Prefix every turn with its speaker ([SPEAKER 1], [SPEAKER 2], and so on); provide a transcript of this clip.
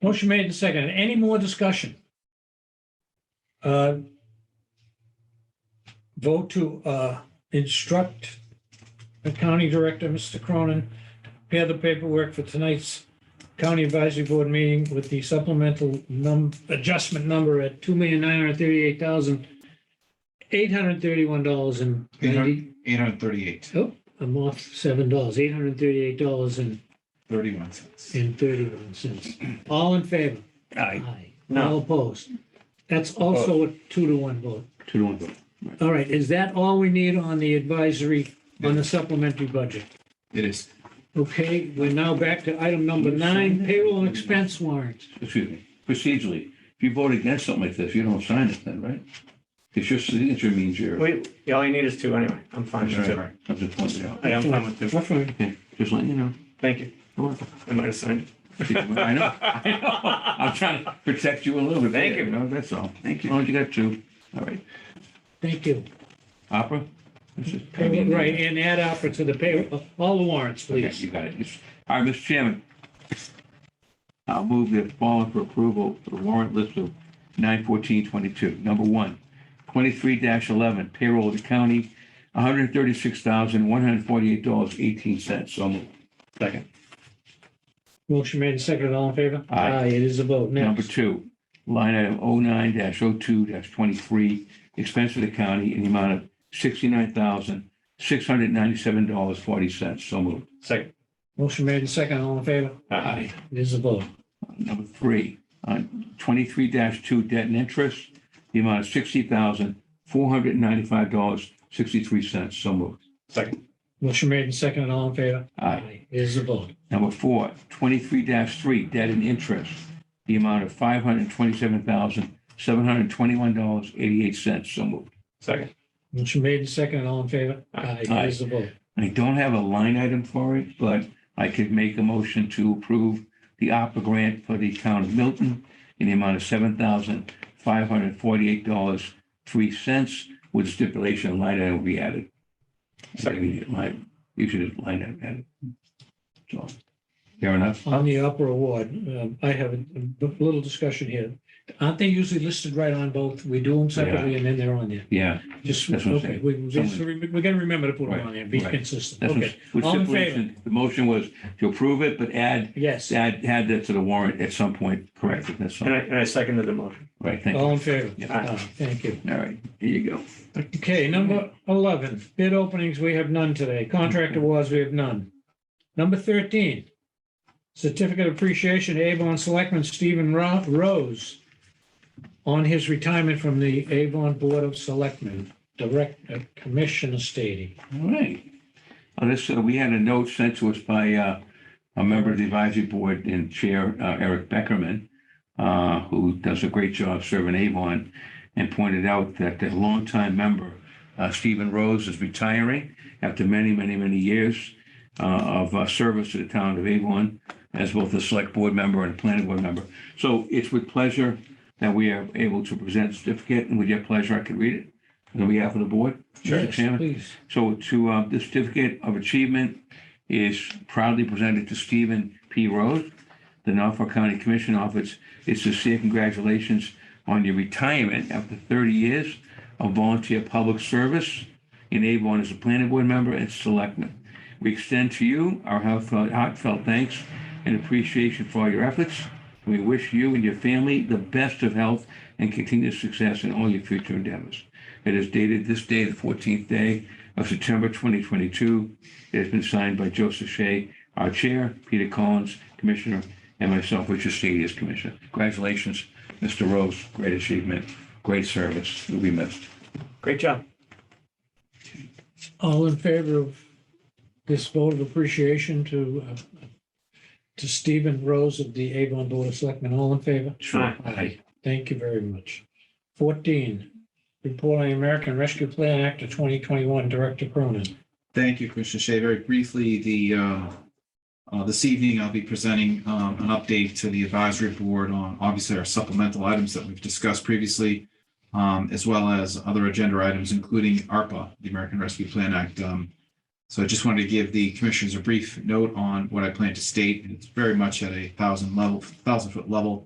[SPEAKER 1] Motion made and seconded. Any more discussion? Uh, Vote to uh, instruct the county director, Mr. Cronin, to prepare the paperwork for tonight's county advisory board meeting with the supplemental num, adjustment number at two million nine hundred thirty-eight thousand eight hundred thirty-one dollars and ninety,
[SPEAKER 2] Eight hundred thirty-eight,
[SPEAKER 1] oh, I'm off seven dollars, eight hundred thirty-eight dollars and
[SPEAKER 2] thirty-one cents.
[SPEAKER 1] and thirty-one cents. All in favor?
[SPEAKER 3] Aye.
[SPEAKER 1] Aye.
[SPEAKER 3] No.
[SPEAKER 1] All opposed. That's also a two to one vote.
[SPEAKER 3] Two to one vote.
[SPEAKER 1] All right, is that all we need on the advisory, on the supplementary budget?
[SPEAKER 2] It is.
[SPEAKER 1] Okay, we're now back to item number nine, payroll and expense warrants.
[SPEAKER 4] excuse me, procedurally, if you vote against something like this, you don't sign it then, right? Because your signature means you're,
[SPEAKER 3] We, yeah, all you need is two anyway. I'm fine with two.
[SPEAKER 2] Right.
[SPEAKER 4] I'm just pointing out.
[SPEAKER 3] I am fine with two.
[SPEAKER 1] That's right.
[SPEAKER 4] Okay, just letting you know.
[SPEAKER 3] Thank you. I might have signed
[SPEAKER 4] I know, I know. I'm trying to protect you a little bit.
[SPEAKER 3] Thank you.
[SPEAKER 4] know, That's all. Thank you. Oh, you got two. All right.
[SPEAKER 1] Thank you.
[SPEAKER 4] Opera? This is-
[SPEAKER 1] Payroll- Right, and add opera to the payroll, all the warrants,
[SPEAKER 4] Okay,
[SPEAKER 1] please.
[SPEAKER 4] You got it. Yes. All right, Mr. Chairman. I'll move the following for approval, the warrant list of nine fourteen twenty-two. Number one, twenty-three eleven payroll of the county, one hundred thirty-six thousand, one hundred forty-eight dollars, eighteen cents. So moved. Second.
[SPEAKER 1] Motion made and seconded, all in favor?
[SPEAKER 4] Aye.
[SPEAKER 1] It is a vote.
[SPEAKER 4] Number
[SPEAKER 1] Next.
[SPEAKER 4] two, line item oh nine dash oh two dash twenty-three, expense of the county in the amount of sixty-nine thousand, six hundred ninety-seven dollars, forty cents. So moved.
[SPEAKER 3] it. Second.
[SPEAKER 1] Motion made and seconded, all in favor?
[SPEAKER 4] Aye.
[SPEAKER 1] It is a vote.
[SPEAKER 4] Number three, on twenty-three two debt and interest, the amount of sixty thousand, four hundred and ninety-five dollars, sixty-three cents. So moved.
[SPEAKER 3] Second.
[SPEAKER 1] Motion made and seconded, all in favor?
[SPEAKER 4] Aye.
[SPEAKER 1] It is a vote.
[SPEAKER 4] Number four, twenty-three three debt and interest, the amount of five hundred and twenty-seven thousand, seven hundred and twenty-one dollars, eighty-eight cents. So moved.
[SPEAKER 3] Second.
[SPEAKER 1] Motion made and seconded, all in favor? Aye. It is a vote.
[SPEAKER 4] I don't have a line item for it, but I could make a motion to approve the opera grant for the town of Milton in the amount of seven thousand five hundred forty-eight dollars, three cents, with stipulation a line item will be added. I think we need a line- You should have line item added. So, fair enough.
[SPEAKER 1] On the upper award, um, I have a a little discussion here. Aren't they usually listed right on both? We do them separately and then they're on there.
[SPEAKER 4] Yeah.
[SPEAKER 1] Just,
[SPEAKER 4] That's what I'm
[SPEAKER 1] okay,
[SPEAKER 4] saying.
[SPEAKER 1] we, we just
[SPEAKER 4] Someone-
[SPEAKER 1] remem- we're gonna remember to put them
[SPEAKER 4] Right,
[SPEAKER 1] on there, be
[SPEAKER 4] right.
[SPEAKER 1] consistent.
[SPEAKER 4] that's what-
[SPEAKER 1] Okay,
[SPEAKER 4] with
[SPEAKER 1] all in
[SPEAKER 4] stipulation, The motion was to approve it, but add,
[SPEAKER 1] yes,
[SPEAKER 4] add, add that to the warrant at some point, correct? That's
[SPEAKER 3] And I,
[SPEAKER 4] all.
[SPEAKER 3] and I seconded the motion.
[SPEAKER 4] Right, thank you.
[SPEAKER 1] all in favor.
[SPEAKER 4] Yeah.
[SPEAKER 1] Uh, Thank you.
[SPEAKER 4] All right, here you go.
[SPEAKER 1] Okay, number 11, bid openings, we have none today. Contract awards, we have none. Number 13, certificate of appreciation, to Avon Selectman Stephen Ro- Rose on his retirement from the Avon Board of Selectmen, uh, Director Commissioner Stady.
[SPEAKER 4] All right. Uh, This, uh, we had a note sent to us by uh, a member of the advisory board and Chair uh, Eric Beckerman, uh, who does a great job serving Avon, and pointed out that the longtime member, uh, Stephen Rose, is retiring after many, many, many years uh, of uh, service to the town of Avon as both a select board member and a planning board member. So it's with pleasure that we are able to present the certificate, and with your pleasure, I could read it on behalf of the board. Mr.
[SPEAKER 1] Yes,
[SPEAKER 4] Chairman.
[SPEAKER 1] Please.
[SPEAKER 4] So to, uh, the certificate of achievement is proudly presented to Stephen P. Rose. The Norfolk County Commission Office is sincere congratulations on your retirement after thirty years of volunteer public service in Avon as a planning board member and selectman. We extend to you our heartfelt- heartfelt thanks and appreciation for all your efforts. We wish you and your family the best of health and continued success in all your future endeavors. It is dated this day, the 14th day of September 2022. It has been signed by Joseph Shea, our chair, Peter Collins, commissioner, and myself, Richard Stady, as commissioner. Congratulations, Mr. Rose. Great achievement, great service. You'll be missed.
[SPEAKER 3] Great job.
[SPEAKER 1] All in favor of this vote of appreciation to, uh, to Stephen Rose of the Avon Board of Selectmen, all in favor?
[SPEAKER 4] Sure.
[SPEAKER 1] Aye. Thank you very much. Fourteen, report on the American Rescue Plan Act of twenty twenty-one, Director Cronin.
[SPEAKER 2] Thank you, Commissioner Shea. Very briefly, the, uh, uh, this evening, I'll be presenting um, an update to the advisory board on obviously our supplemental items that we've discussed previously, um, as well as other agenda items, including ARPA, the American Rescue Plan Act. Um, So I just wanted to give the commissioners a brief note on what I plan to state. It's very much at a thousand level, thousand foot level.